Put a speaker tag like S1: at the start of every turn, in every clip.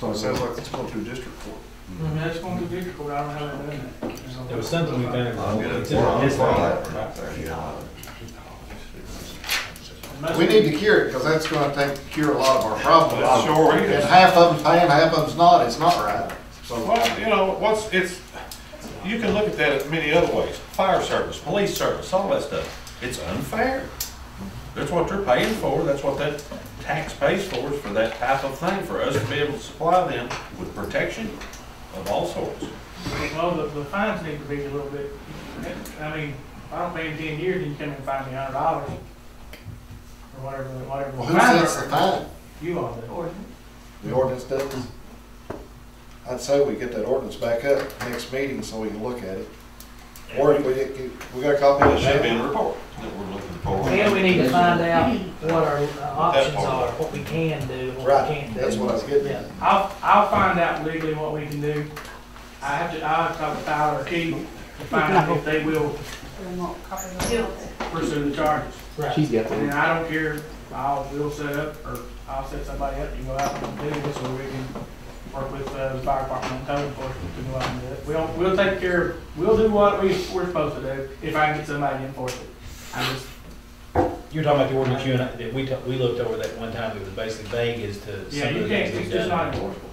S1: So it sounds like it's going through district court.
S2: I mean, that's going to be difficult, I don't know how they done that.
S3: Mm-hmm. It was something we've done.
S1: I'll get it.
S3: It's in our history. Right.
S4: We need to cure it, because that's gonna take, cure a lot of our problems.
S1: Sure
S4: And
S1: is.
S4: half of them's paying, half of them's not, it's not right. So,
S1: Well, you know, what's, it's, you can look at that in many other ways, fire service, police service, all that stuff. It's unfair. That's what they're paying for, that's what that tax pays for, is for that type of thing, for us to be able to supply them with protection of all sorts.
S2: Well, the, the fines need to be a little bit, I mean, if I don't pay in ten years, you come and find me a hundred dollars. Or whatever, whatever.
S4: well, who sets the
S2: Fine,
S4: time?
S2: You all do.
S4: The ordinance doesn't. I'd say we get that ordinance back up next meeting so we can look at it. Or if we, get- we got a copy
S1: It
S4: of
S1: should be in
S4: it.
S1: the report that we're looking for.
S5: And we need to find out what our uh, options are, what we can do, what we
S4: Right,
S5: can't do.
S4: that's what I was getting
S5: Yeah.
S4: at.
S2: I'll, I'll find out legally what we can do. I have to, I'll have to talk to Tyler or Keith to find out if they will pursue the charges.
S5: Right.
S6: She's got
S2: And
S6: them.
S2: I don't care, I'll, we'll set up, or I'll set somebody up, you go out and do this, or we can work with, uh, the fire department and code enforcement to go out and do it. We'll, we'll take care, of we'll do what we, we're supposed to do, if I can get somebody to enforce it. I just,
S3: You were talking about the ordinance you and I, that we, talked- we looked over that one time, it was basically vague as to
S2: yeah,
S3: some
S2: you
S3: of the
S2: can't,
S3: things
S2: it's
S3: we've
S2: just not
S3: done.
S2: enforceable.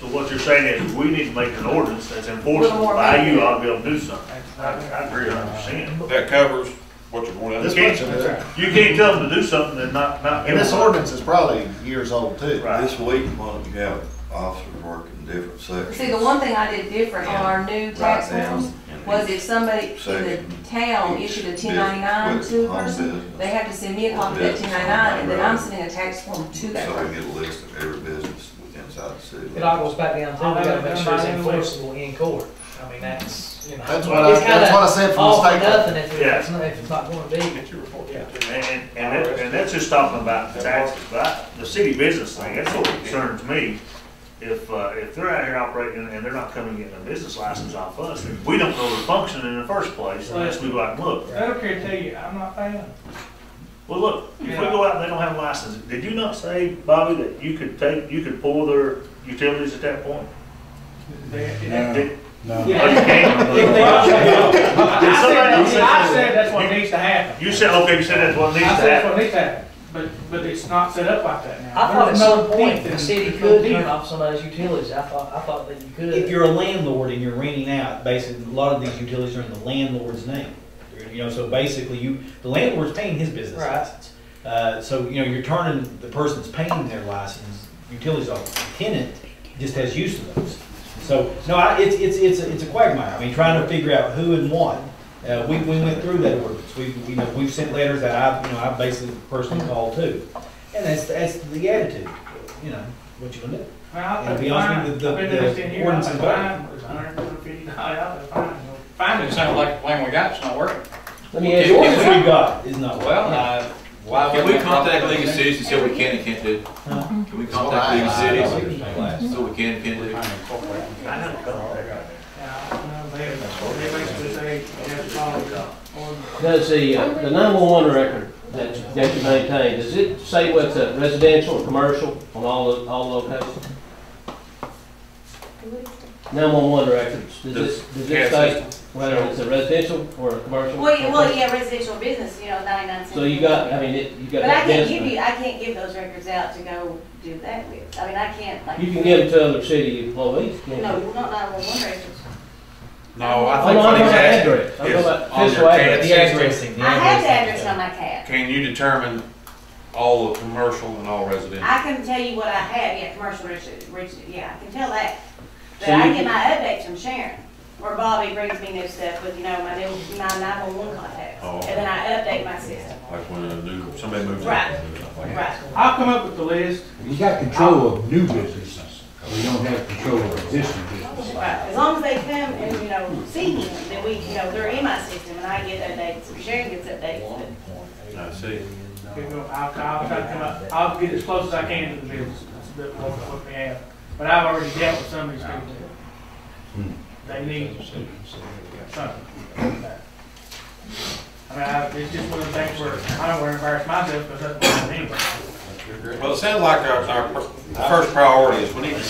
S7: So what you're saying is, we need to make an ordinance that's enforceable by you, I'll be able to do something.
S2: That's
S7: I,
S2: not it.
S7: I agree a hundred percent.
S1: That covers what you're going to.
S7: This
S4: This
S1: do.
S4: much of it.
S7: You can't tell them to do something and not, not.
S4: And
S7: give
S4: this
S7: them-
S4: ordinance is probably years old too.
S7: Right.
S8: This week, why don't you have officers work in different sections?
S9: See, the one thing I did different on our new tax
S8: Write down
S9: forms
S8: and
S9: was if somebody in the
S8: Second.
S9: town issued a ten ninety-nine
S8: Business,
S9: to a
S8: home
S9: person,
S8: business.
S9: they have to send me a copy of that ten ninety-nine, and then I'm sending a tax form to that
S8: So we
S9: person.
S8: get a list of every business within inside the city.
S5: It all goes back down to, we gotta make sure it's enforceable in court. I mean, that's, you know.
S4: That's what I, that's what I said from
S5: All
S4: the
S5: for
S4: state. court.
S5: nothing if it's, not- if it's not gonna be.
S1: Get your report.
S7: And, and, and that- and that's just talking about the taxes, but I- the city business thing, that's what concerns me. If, uh, if they're out here operating and they're not coming getting a business license off us, then we don't know they're functioning in the first place unless we go out and look.
S2: I don't care to tell you, I'm not paying.
S7: Well, look, if we go out and they don't have a license, did you not say, Bobby, that you could take, you could pull their utilities at that point?
S2: They-
S7: Did-
S2: Yeah.
S7: Oh, you can't?
S2: If they don't say no. I
S7: Did
S2: said,
S7: somebody-
S2: I said- I said that's what needs to happen.
S7: You said, okay, you said that's what needs to
S2: I said,
S7: happen.
S2: that's what needs to happen, but, but it's not set up like that now.
S5: I thought at
S2: There's
S5: some
S2: no
S5: point,
S2: teeth in-
S5: the city
S2: there's no
S5: could
S2: teeth.
S5: turn off somebody's utilities. I thought, I thought that you could.
S3: If you're a landlord and you're renting out, basically, a lot of these utilities are in the landlord's name. You know, so basically you, the landlord's paying his business
S5: Right.
S3: license. Uh, so, you know, you're turning, the person's paying their license, utilities off, the tenant just has use of those. So, no, I, it's, it's, it's, a- it's a quagmire, I mean, trying to figure out who and what. Uh, we, we went through that ordinance, we, you know, we've sent letters that I've, you know, I've basically personally called too. And that's, that's the attitude, you know, what you gonna do.
S2: Well, I
S3: And to be
S2: think
S3: honest
S2: fine.
S3: with you, the-
S2: I've been
S3: the
S2: there 10 years,
S3: ordinance
S2: I think
S3: is
S2: fine was $150. I think fine. Fine is-
S10: like the plan we got is not working.
S3: I mean, the ordinance we've got is not.
S10: Well, uh, why?
S6: Can we contact League of Cities and see what we can and can't do?
S3: Huh?
S6: Can we
S4: Well, I-
S6: contact League of
S3: I-
S6: Cities
S3: I-
S6: and see what we can and can't do?
S7: I know,
S2: Yeah, I don't know, they, they basically say, you have to follow the ordinance.
S11: Does the, uh, the nine-one-one record that, that you maintain, does it say what's a residential or commercial on all, the- all locations? Nine-one-one records, does it, does it say whether it's a residential or a commercial?
S9: Well, you- well, yeah, residential business, you know, ninety-nine cents.
S11: So you got, I mean, it- you got
S9: But I
S11: that
S9: can't give
S11: density.
S9: you, I can't give those records out to go do that with, I mean, I can't, like.
S11: You can give it to other city employees, can't you?
S9: No, not nine-one-one records.
S6: No, I
S11: Oh, no,
S6: think what
S11: I'm
S6: he's
S11: talking about
S6: asking,
S11: address. I'm talking about
S6: on
S11: physical
S6: your
S11: address.
S6: tax.
S5: The addressing.
S9: I have the address on my cab.
S6: can you determine all the commercial and all residential?
S9: I can tell you what I have, yeah, commercial, resi- resi- yeah, I can tell that. But
S11: So
S9: I
S11: you
S9: get my updates from Sharon, where Bobby brings me new stuff with, you know, my new, my nine-one-one contacts.
S8: Oh.
S9: And then I update my system.
S8: Like when a new, somebody moves in.
S9: Right.
S8: Like that.
S9: Right.
S2: I'll come up with the list.
S12: You got control of new businesses, we don't have control of existing businesses.
S9: Right, as long as they come and, you know, see me, then we, you know, they're in my system and I get updates, and Sharon gets updates. but-
S8: I see.
S2: You know, I'll, I'll try to come up, I'll get as close as I can to the bills, that's a bit what, what we have. But I've already dealt with some of these people. They need something. I mean, I, it's just one of the things where I don't want to embarrass myself because that's what I mean.
S1: Well, it sounds like our, our first priority is we need to